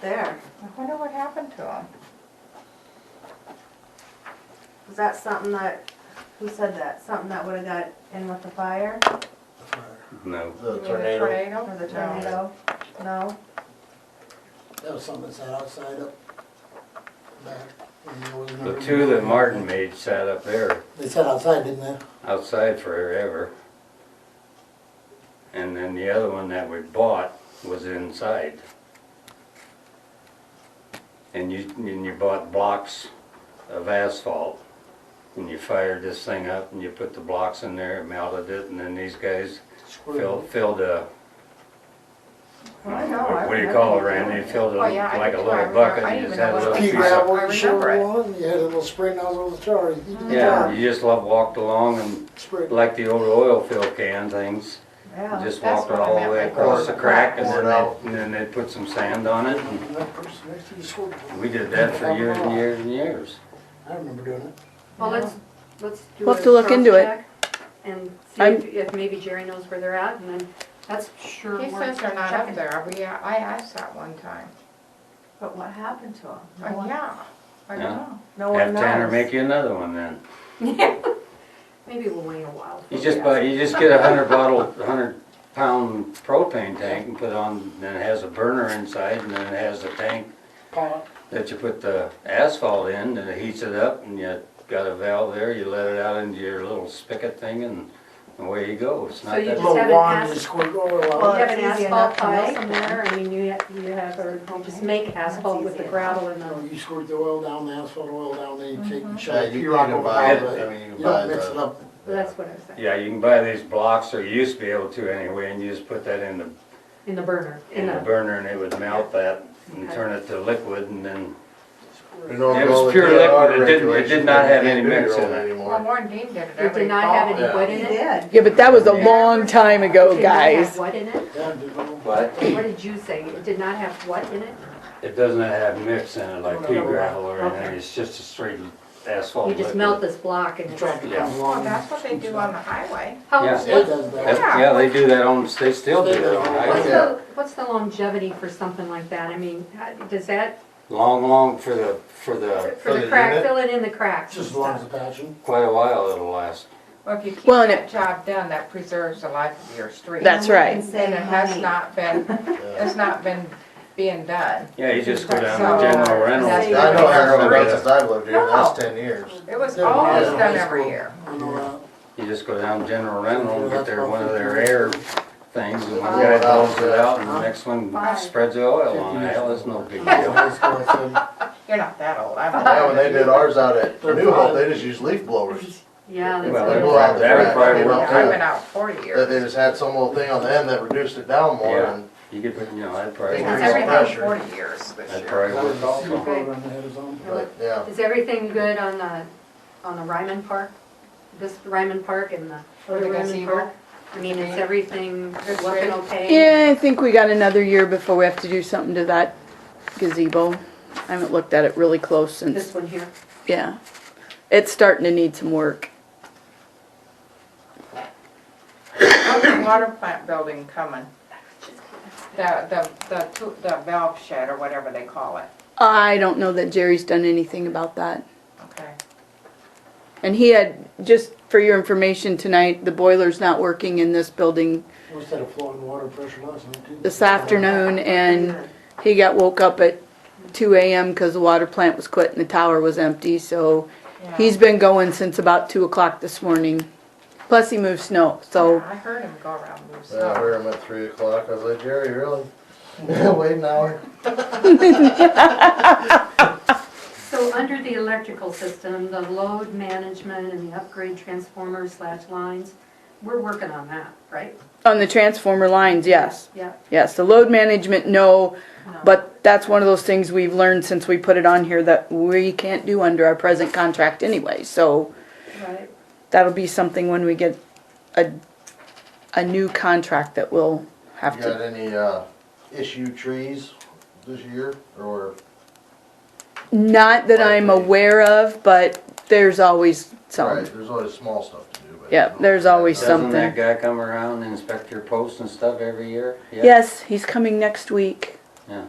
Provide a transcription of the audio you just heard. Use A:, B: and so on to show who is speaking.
A: there.
B: I wonder what happened to him.
A: Was that something that, who said that, something that would've got in with the fire
C: No.
D: The
B: You mean
D: tornado.
A: or the
B: No.
A: tornado? No?
D: That was something that sat outside up back. when there was
C: The
D: never-
C: two that Martin made sat up there
D: They sat outside, didn't they?
C: outside forever. And then the other one that we bought was inside. And you, and you bought blocks of asphalt. And you fired this thing up and you put the blocks in there, melted it, and then these guys filled,
D: Screwed.
C: filled a,
A: I know, I
C: what do you
A: remember
C: call it,
A: you
C: Randy?
A: doing it.
C: Filled it
E: Oh, yeah, I
C: like a
E: do, I
C: little
E: remember.
C: bucket
E: I
C: and you
E: didn't
C: just
E: even
C: had a
E: know
C: little
E: what
C: piece
D: Pea
E: it was.
D: gravel, you
C: of
E: I
D: shoveled
E: remember Mm-hmm.
D: on, you had a little spray nozzle of the tar, you did the
C: Yeah,
D: job.
C: you just lo- walked along and
D: Sprayed.
C: like the old oil fill can things, you
A: Yeah,
C: just
E: That's
C: walked it
E: what I
C: all the
E: meant
C: way
E: by
C: across the
E: pouring.
C: crack and
D: Pour
C: then
D: it out.
C: they, and then they put some sand on it. and
D: And that person next to you scored.
C: We did that for years and years and years.
D: I remember doing it.
F: Well, let's, let's do a
G: We'll have to look into it.
F: cross-check And see
G: I'm-
F: if if maybe Jerry knows where they're at, and then that's sure
E: He
F: worth
E: says they're not
F: checking.
E: up there, we, I asked that one time,
A: but what happened to him? No
E: Oh,
A: one-
E: yeah, oh. I
C: Yeah.
E: don't know.
A: No one
C: Have
A: knows.
C: Tanner make you another one then.
F: Maybe we'll wait a while.
C: You just buy, you just get a hundred bottle, a hundred pound propane tank and put on, then it has a burner inside and then it has a tank
D: Pot.
C: that you put the asphalt in and it heats it up and you got a valve there, you let it out into your little spigot thing and away you go. It's
F: So
C: not
F: you
C: that.
F: just
D: Little
F: have an
D: wand, you
F: ass-
D: squirt oil
F: You
A: Well,
D: out.
F: have an
A: it's easy
F: asphalt
A: enough to
F: pile
A: make
F: somewhere, I mean, you, ha- you have, or just make asphalt with the
A: easy.
F: gravel and the,
D: No, You squirt the oil down, the asphalt oil down, then you
E: Mm-hmm.
D: take and
H: Yeah,
D: shove
H: you
D: pea
H: need
D: rock
H: to
D: over
H: buy
D: top
H: it,
D: of
H: I
D: it.
H: mean, you
D: You
H: buy
D: don't mix it
H: the,
D: up.
F: that's what I'm saying,
C: Yeah, you can buy these blocks, or you used to be able to anyway, and you just put that in the,
F: in the burner, in
C: in the
F: the,
C: burner and it would melt that and turn it to liquid and then,
H: you know,
C: It was
H: all the
C: pure
H: DNR
C: liquid. It didn't- it did
H: regulations,
C: not
H: you
C: have
H: can't
C: any
H: do your
C: mix in
H: own
C: it.
E: well,
H: Anymore.
E: Warren Dean did it
F: it
E: every
F: did not
C: Oh,
F: have
E: fall.
F: any wood
A: He
F: in it.
A: did.
G: Yeah, but that was a long time ago,
F: Did not have
G: Oh, guys.
F: What in it?
D: Yeah, do it.
C: but
F: What did you say, it did not have what in it?
C: it doesn't have mix in it like pea gravel or anything,
F: Okay.
C: it's just a straight asphalt
F: You
C: liquid.
F: just melt this block and
D: The
F: it's,
D: tractor comes along.
E: Well, Oh, that's what they do on the highway.
F: how,
C: Yeah.
F: what's
D: It
F: the,
D: does
C: That's-
D: that.
C: Yeah,
E: Yeah.
C: they do that on, they still do that on
D: What's
C: highway.
D: the-
F: what's the longevity for something like that? I mean, how- does that,
C: Long, long for the, for the,
F: for the
H: the
F: crack,
H: unit?
F: filling in the cracks and
D: Just as long as
F: stuff?
D: the passion.
C: quite a while it'll last.
E: Well, if you keep
G: Well, and
E: that job done, that preserves the life of your street.
G: That's
A: And we
G: right.
A: can save
E: And it has
A: money.
E: not been, it's not been being done.
C: Yeah, you just go down
E: So-
C: to General Reynolds.
E: That's-
H: Yeah, I know, it hasn't been
C: Arrowhead.
H: done since I've lived here, and that's
E: No.
H: ten years.
E: It was
D: Yeah,
E: always
D: yeah.
E: done every year.
D: You know, uh,
C: You just go down General Rental and
D: Yeah,
C: get their,
D: that's
C: one of
D: what
C: their
D: we do.
C: air things, and
H: Oh,
C: one guy blows it out, and the next one
A: Fine.
C: spreads the oil on it, hell, it's no big
D: uh,
C: deal.
D: high school, I said,
E: You're not that old, I'm.
H: Yeah, when they did ours out at
D: They're
H: Newholt,
D: fine.
H: they just used leaf blowers.
A: Yeah, that's
C: Well,
A: what
H: They
A: it
H: blow
A: is.
H: out the
C: That would
H: crack,
C: probably
H: you know,
C: work
E: I've
C: too.
E: been out forty
H: That they
E: years.
H: just had some little thing on the end that reduced it down more,
C: Yeah.
H: and
C: You get, you know, I'd probably,
H: Because
E: It's
C: work-
H: every-
E: everything
H: pressure.
E: forty years this
C: I'd
E: year.
C: probably
D: that was
C: work
D: the
C: also.
D: super program they had us on.
H: but, yeah.
A: Is everything good on the, on the Ryman Park? This Ryman Park and the
E: the
A: other Ryman
E: gazebo?
A: Park? I mean, is everything
E: It's
A: looking
E: good.
A: okay?
G: Yeah, I think we got another year before we have to do something to that gazebo. I haven't looked at it really close
A: This
G: since,
A: one here?
G: yeah. It's starting to need some work.
E: How's the water plant building coming? The, the, the, two- the valve shed or whatever they call it,
G: I don't know that Jerry's done anything about that.
E: okay?
G: And he had, just for your information tonight, the boiler's not working in this building
D: We set a flow in water pressure last night too.
G: this afternoon and he got woke up at two AM because the water plant was quit and the tower was empty, so
E: Yeah.
G: he's been going since about two o'clock this morning. Plus he moved snow, so
E: I heard him go around loose.
H: Yeah, I heard him at three o'clock, I was like, Jerry, really? Wait an hour.
A: So under the electrical system, the load management and the upgrade transformers slash lines, we're working on that, right?
G: on the transformer lines, yes.
A: Yeah.
G: Yes, the load management, no,
A: no.
G: but that's one of those things we've learned since we put it on here that we can't do under our present contract anyway, so
A: Right,
G: that'll be something when we get a, a new contract that we'll
H: You
G: have to
H: got any, uh, issue trees this year, or
G: Not that I'm
H: Likely.
G: aware of, but there's always
H: Right,
G: some.
H: there's always small stuff to do, but.
G: Yep, there's always
C: Doesn't
G: something.
C: that guy come around and inspect your posts and stuff every year? Yeah.
G: Yes, he's coming next week.
C: Yeah.